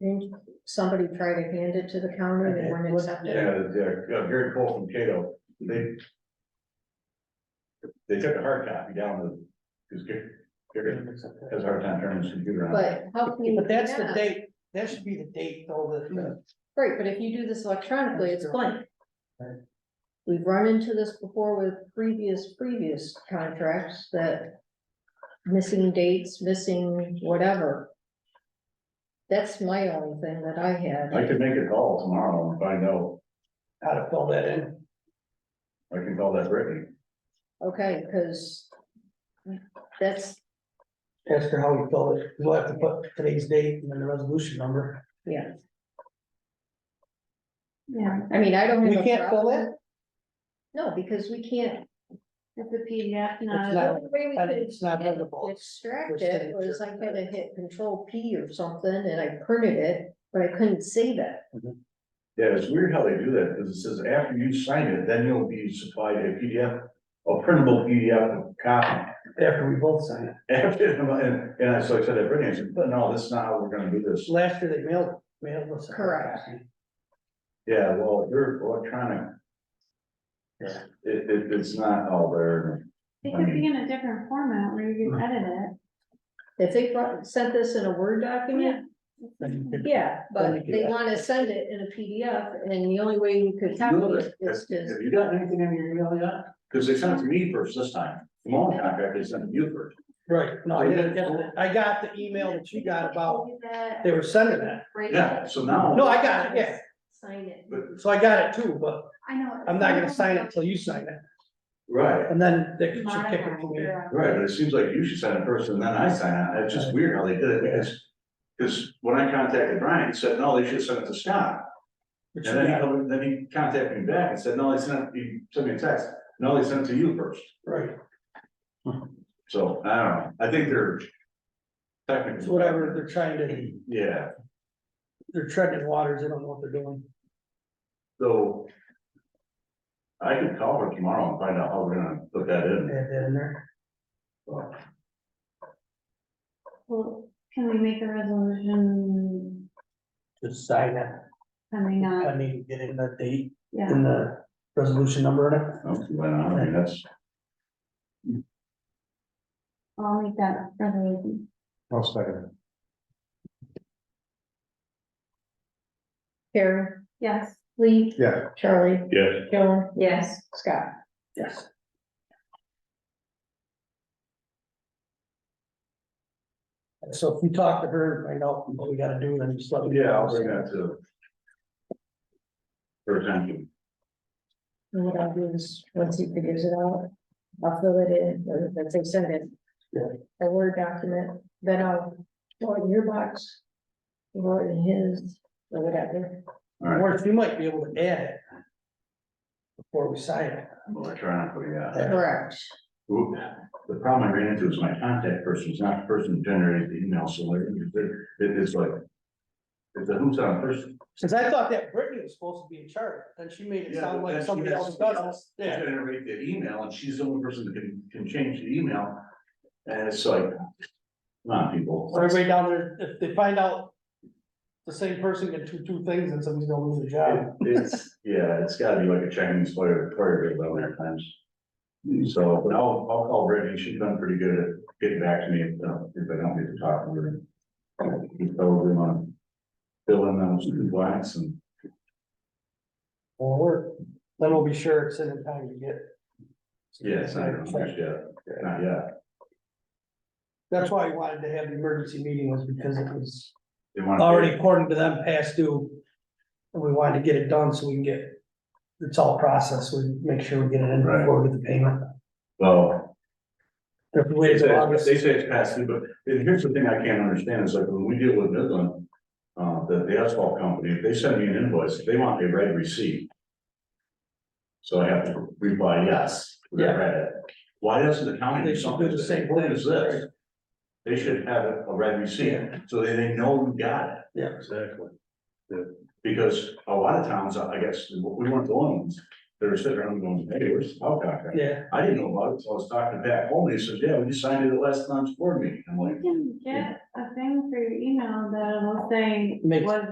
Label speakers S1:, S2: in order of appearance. S1: didn't somebody try to hand it to the county and they weren't accepted?
S2: Yeah, the, uh, Gary Cole from Cato, they. They took a hard copy down to, because Gary has a hard time turning his computer on.
S1: But how can you?
S3: But that's the
S1: yeah. Hmm.
S3: date, that should be the date though, that- uh, that,
S1: Right, but if you do this electronically, it's blank.
S3: Right.
S1: We've run into this before with previous, previous contracts that missing dates, missing whatever. That's my only thing that I had.
S2: I could make a call tomorrow and find out,
S3: how to fill that in.
S2: I can call that Brittany.
S1: Okay, because that's,
S3: Ask her how we fill it. We'll have to put today's date and then the resolution number.
S1: yeah. Yeah. I mean, I don't.
S3: We
S1: have a
S3: can't fill
S1: problem-
S3: it?
S1: No, because we can't.
S4: It's a PDF,
S3: It's
S1: The
S3: not-
S4: not,
S1: only way we
S3: but
S1: could
S3: it's not editable.
S1: Extract it was I had to hit control P or something and I printed it, but I couldn't save it.
S2: Yeah, it's weird how they do that, because it says after you sign it, then you'll be supplied a PDF, a printable PDF copy.
S3: After we both sign it.
S2: After, and, and I, so I said to Brittany, I said, but no, that's not how we're gonna do this.
S3: Last year they mailed, mailed us. a
S1: Correct.
S3: copy.
S2: Yeah, well, you're electronic.
S3: Yeah.
S2: It, it, it's not all there.
S4: it could be in a different format where you can edit
S1: If they brought, sent this in a Word document,
S3: Then you
S4: it.
S3: could-
S1: yeah,
S3: Then we
S1: but
S3: could-
S1: they wanna send it in a PDF and the only way you could copy it is to.
S2: Have you got anything in your email yet? Cause they sent it to me first this time, the moment contract, they sent it to you first.
S3: Right, no, I didn't get it. I got the email that you got about,
S4: That-
S3: they were sending that.
S4: Right.
S2: Yeah, so now.
S3: No, I got it, yeah.
S1: Sign it.
S3: So I got it too, but
S4: I know.
S3: I'm not gonna sign it till you sign it.
S2: Right,
S3: And then they should kick
S4: Modify uh,
S3: it for me.
S4: it.
S2: right, but it seems like you should sign it first and then I sign it, it's just weird how they did it, because. Cause when I contacted Brian, he said, no, they should send it to Scott,
S3: Which
S2: and then he,
S3: is-
S2: come- then he contacted me back and said, no, they sent, it- he sent me a text, no, they sent it to you first.
S3: Right,
S2: So, I don't know, I think they're.
S3: it's
S2: Technically.
S3: whatever, they're trying to,
S2: Yeah,
S3: they're treading waters, they don't know what they're doing.
S2: so. I can call her tomorrow and find out how we're gonna put that in.
S3: Add that in there.
S2: so.
S4: Well, can we make a resolution
S3: Just sign it.
S4: coming
S3: I
S4: up?
S3: need to get in the date
S4: Yeah,
S3: and the resolution number in it.
S2: Okay, well, I mean, that's,
S4: I'll make that resolution.
S5: I'll second
S1: Karen,
S4: Yes.
S1: Lee,
S5: it. Yeah,
S1: Charlie,
S2: yeah,
S1: Joan,
S4: Yes.
S1: Scott.
S3: Yes. So if you talk to her, find out what we gotta do, then just let me.
S2: Oh, yeah, I'll bring that to. Her attention,
S1: And what I'll do is, once he figures it out, I'll fill it in, or let's say send it.
S3: Yeah.
S1: A Word document, then I'll throw it in your box. Or in his, or whatever.
S3: Or if you might be able to add it. Before we sign it.
S2: electronically, yeah.
S1: Correct.
S2: Oop, The problem I ran into is my contact person is not the person who generated the email, so like, it- it's like. It's a who's on first.
S3: Cause I thought that Brittany was supposed to be in charge, then she made it sound like somebody else does it.
S2: They generate the email and she's the only person that can, can change the email. And it's like, come on, people.
S3: So Everybody down there, if they find out. The same person can do two things and somebody's gonna lose their job.
S2: It- It's, yeah, it's gotta be like a Chinese player, player down there at times. So, but I'll, I'll call Brittany, she's done pretty good at getting back to me if, uh, if I don't get to talk to her. She's probably gonna fill in those two blanks and,
S3: Or, work. then we'll be sure it's in the time to get.
S2: yes, I don't, yeah, not yet.
S3: That's why I wanted to have the emergency meeting was because it was
S2: They wanna-
S3: already according to them past due. And we wanted to get it done so we can get, it's all processed, we make sure we get it in
S2: Right.
S3: before we get the payment.
S2: Well,
S3: If we
S2: They
S3: wait
S2: say,
S3: till
S2: it's-
S3: August,
S2: they say it's past due, but and here's the thing I can't understand, is like when we deal with Midland, uh, the, the asphalt company, if they send me an invoice, they want a red receipt. So I have to reply yes, we
S3: Yeah.
S2: read it. Why doesn't the county
S3: They
S2: do
S3: should
S2: something
S3: do the
S2: as
S3: same
S2: important as
S3: thing,
S2: this? They should have a a red receipt, so they, they know we got it.
S3: Yeah.
S2: Exactly. Because a lot of towns, I I guess, we weren't the ones that are sitting around going, hey, where's the Powell contract?
S3: yeah,
S2: I didn't know about it, so I was talking to Pat Holman, he says, yeah, we just signed it at last time's board meeting, I'm like.
S4: You can get a thing for your email that'll say
S3: Makes-
S4: was